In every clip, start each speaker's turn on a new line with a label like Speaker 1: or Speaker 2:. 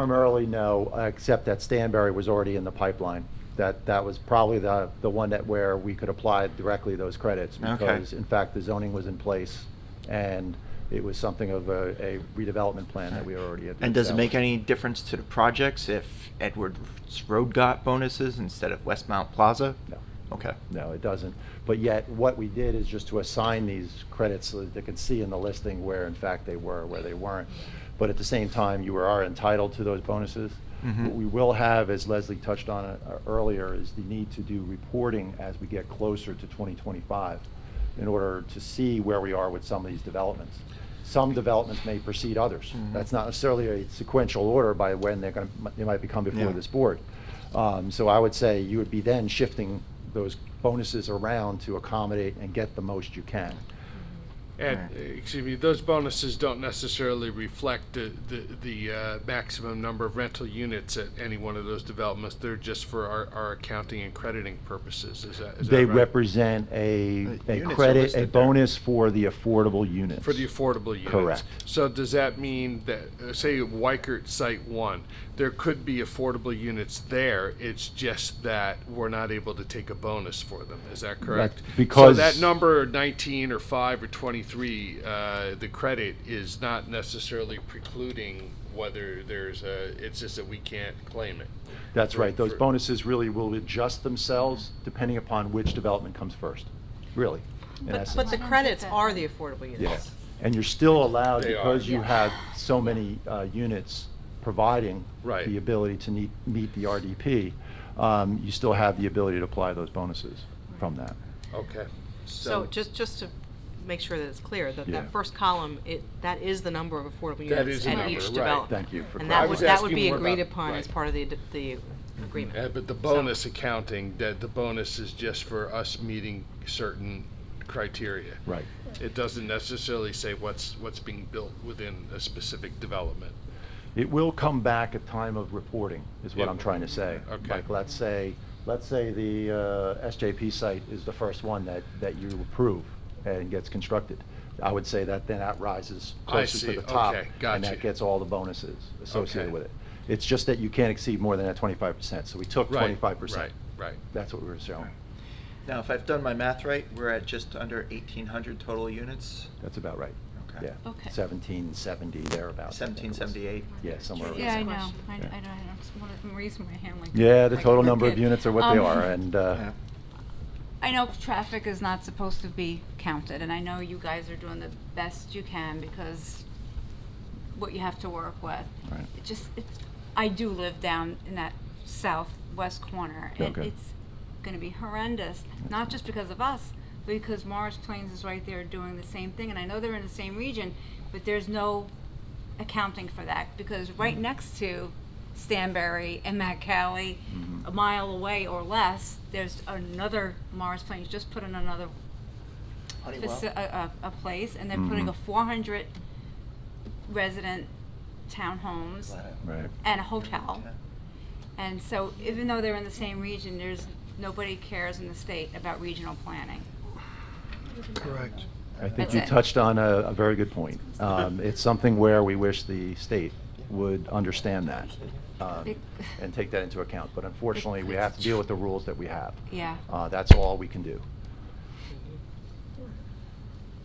Speaker 1: Primarily, no, except that Stanberry was already in the pipeline. That, that was probably the, the one that where we could apply directly those credits.
Speaker 2: Okay.
Speaker 1: Because in fact, the zoning was in place and it was something of a a redevelopment plan that we already had.
Speaker 2: And does it make
Speaker 1: established.
Speaker 2: any difference to the projects if Edwards Road got bonuses instead of Westmount Plaza?
Speaker 1: No.
Speaker 2: Okay.
Speaker 1: No, it doesn't. But yet, what we did is just to assign these credits so that they could see in the listing where in fact they were, where they weren't. But at the same time, you are entitled to those bonuses.
Speaker 2: Mhm.
Speaker 1: What we will have, as Leslie touched on uh, earlier, is the need to do reporting as we get closer to 2025 in order to see where we are with some of these developments. Some developments may precede others.
Speaker 2: Mhm.
Speaker 1: That's not necessarily a sequential order by when they're going to, they might become before
Speaker 2: Yeah.
Speaker 1: this board. Um, So I would say you would be then shifting those bonuses around to accommodate and get the most you can.
Speaker 3: And,
Speaker 2: Right.
Speaker 3: uh, excuse me, those bonuses don't necessarily reflect the, the, the uh, maximum number of rental units at any one of those developments. They're just for our, our accounting and crediting purposes, is that, is that
Speaker 1: They
Speaker 3: right?
Speaker 1: represent a,
Speaker 2: The
Speaker 1: a
Speaker 2: units are
Speaker 1: credit, a
Speaker 2: listed there.
Speaker 1: bonus for the affordable units.
Speaker 3: For the affordable units.
Speaker 1: Correct.
Speaker 3: So does that mean that, uh, say, Wykert Site One, there could be affordable units there, it's just that we're not able to take a bonus for them, is that correct?
Speaker 1: because-
Speaker 3: So that number nineteen or five or twenty-three, uh, the credit is not necessarily precluding whether there's a, it's just that we can't claim it.
Speaker 1: That's
Speaker 3: for-
Speaker 1: right. Those
Speaker 3: for-
Speaker 1: bonuses really will adjust themselves depending upon which development comes first, really, in
Speaker 4: But, but
Speaker 1: essence.
Speaker 4: the credits are the affordable units.
Speaker 1: Yes. And you're still allowed,
Speaker 3: They are.
Speaker 1: because you
Speaker 4: Yeah.
Speaker 1: have so many uh, units providing
Speaker 3: Right.
Speaker 1: the ability to meet, meet the RDP, um, you still have the ability to apply those bonuses from that.
Speaker 3: Okay.
Speaker 4: So just, just to make sure that it's clear, that
Speaker 1: Yeah.
Speaker 4: that first column, it, that is the number of affordable
Speaker 3: That
Speaker 4: units
Speaker 3: is the
Speaker 4: at
Speaker 3: number,
Speaker 4: each
Speaker 3: right.
Speaker 4: development.
Speaker 1: Thank you for
Speaker 4: And
Speaker 3: I
Speaker 4: that
Speaker 1: clarifying.
Speaker 4: would,
Speaker 3: was
Speaker 4: that would
Speaker 3: asking
Speaker 4: be
Speaker 3: more about-
Speaker 4: agreed upon as
Speaker 3: right.
Speaker 4: part of the, ad- the
Speaker 3: Uh,
Speaker 4: agreement.
Speaker 3: but the bonus accounting, that the bonus is just for us meeting certain criteria.
Speaker 1: Right.
Speaker 3: It doesn't necessarily say what's, what's being built within a specific development.
Speaker 1: It will come back at time of reporting, is what
Speaker 3: It
Speaker 1: I'm
Speaker 3: will.
Speaker 1: trying to say.
Speaker 3: Okay.
Speaker 1: Like, let's say, let's say the uh, SJP site is the first one that, that you approve and gets constructed. I would say that then that rises
Speaker 3: I
Speaker 1: closer
Speaker 3: see.
Speaker 1: to the top.
Speaker 3: Okay,
Speaker 1: And
Speaker 3: gotcha.
Speaker 1: that gets all the bonuses associated
Speaker 3: Okay.
Speaker 1: with it. It's just that you can't exceed more than that twenty-five percent, so we took
Speaker 3: Right,
Speaker 1: twenty-five percent.
Speaker 3: Right, right.
Speaker 1: That's what we were showing.
Speaker 2: Now, if I've done my math right, we're at just under 1,800 total units.
Speaker 1: That's about right.
Speaker 2: Okay.
Speaker 1: Yeah.
Speaker 5: Okay.
Speaker 1: Seventeen seventy, thereabouts. I think it was.
Speaker 2: 1778.
Speaker 1: Yeah, somewhere around
Speaker 5: Yeah, I
Speaker 1: there.
Speaker 5: know. I, I
Speaker 1: Yeah.
Speaker 5: don't, I just wanna- I'm raising my hand like.
Speaker 1: Yeah, the
Speaker 5: like a
Speaker 1: total
Speaker 5: little
Speaker 1: number of
Speaker 5: kid.
Speaker 1: units are what they
Speaker 5: Um,
Speaker 1: are, and, uh,
Speaker 5: I know traffic is not supposed to be counted, and I know you guys are doing the best you can because what you have to work with.
Speaker 1: Right.
Speaker 5: It just, it's, I do live down in that southwest corner, and
Speaker 1: Okay.
Speaker 5: it's gonna be horrendous, not just because of us, but because Morris Plains is right there doing the same thing, and I know they're in the same region, but there's no accounting for that, because
Speaker 1: Mm-hmm.
Speaker 5: right next to Stanberry and Matt Cali,
Speaker 1: Mm-hmm.
Speaker 5: a mile away or less, there's another Morris Plains, just put in another
Speaker 2: Honeywell.
Speaker 5: faci- a, a, a place, and
Speaker 1: Mm-hmm.
Speaker 5: they're putting a four hundred resident townhomes
Speaker 1: Right.
Speaker 5: and a hotel. And so even though they're in the same region, there's, nobody cares in the state about regional planning.
Speaker 3: Correct.
Speaker 1: I think
Speaker 5: That's
Speaker 1: you
Speaker 5: it.
Speaker 1: touched on a, a very good point. Um, it's something where we wish the state would understand that um,
Speaker 5: It-
Speaker 1: and take that into account. But unfortunately, we have to deal with the rules that we have.
Speaker 5: Yeah,
Speaker 1: Uh, that's all we can do.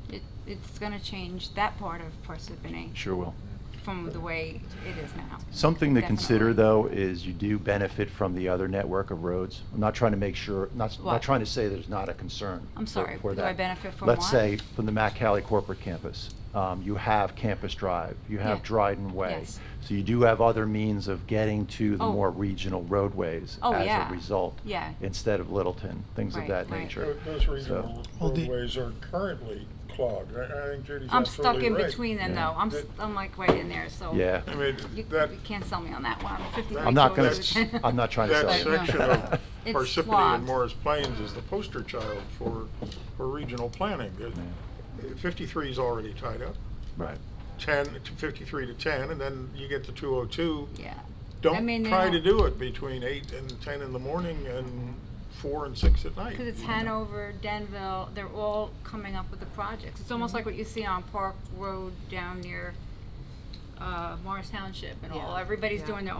Speaker 5: it, it's gonna change that part of Parsippany
Speaker 1: Sure will.
Speaker 5: from the way it is now.
Speaker 1: Something to consider,
Speaker 5: Definitely.
Speaker 1: though, is you do benefit from the other network of roads. I'm not trying to make sure, not, not
Speaker 5: What?
Speaker 1: trying to say there's not a concern.
Speaker 5: I'm
Speaker 1: for-
Speaker 5: sorry,
Speaker 1: for
Speaker 5: do I
Speaker 1: that.
Speaker 5: benefit from
Speaker 1: Let's
Speaker 5: what?
Speaker 1: say, from the Mack Cali corporate campus. Um, You have Campus Drive, you have
Speaker 5: Yeah.
Speaker 1: Dryden Way.
Speaker 5: Yes.
Speaker 1: So you do have other means of getting to the
Speaker 5: Oh.
Speaker 1: more regional roadways
Speaker 5: Oh,
Speaker 1: as
Speaker 5: yeah.
Speaker 1: a result.
Speaker 5: Yeah.
Speaker 1: Instead of Littleton, things of
Speaker 5: Right,
Speaker 1: that
Speaker 5: right.
Speaker 1: nature.
Speaker 6: Tho- Those
Speaker 1: So-
Speaker 6: regional roadways are currently clogged. I I think Judy's absolutely right.
Speaker 5: I'm stuck in between them
Speaker 1: Yeah.
Speaker 5: though, I'm, s- I'm like right in there, so.
Speaker 1: Yeah.
Speaker 6: I mean,
Speaker 5: You,
Speaker 6: that,
Speaker 5: you can't sell me on that one, I'm fifty-three
Speaker 1: I'm not going
Speaker 5: kilos.
Speaker 1: to, I'm not trying to
Speaker 6: that
Speaker 1: sell you.
Speaker 6: section of
Speaker 5: It's
Speaker 6: Parsippany
Speaker 5: clogged.
Speaker 6: and Morris Plains is the poster child for, for regional planning. There- 53 is already tied up,
Speaker 1: Right.
Speaker 6: 10, to 53 to 10, and then you get to 202.
Speaker 5: Yeah, mean,
Speaker 6: Don't
Speaker 5: they
Speaker 6: try to
Speaker 5: don't-
Speaker 6: do it between 8 and 10 in the morning and 4 and 6 at night.
Speaker 5: because it's Hanover, Denville, they're all coming up with the projects. It's almost like what you see on Park Road down near, uh, Morris Township and all,
Speaker 4: Yeah.
Speaker 5: everybody's
Speaker 4: Yeah.
Speaker 5: doing their own.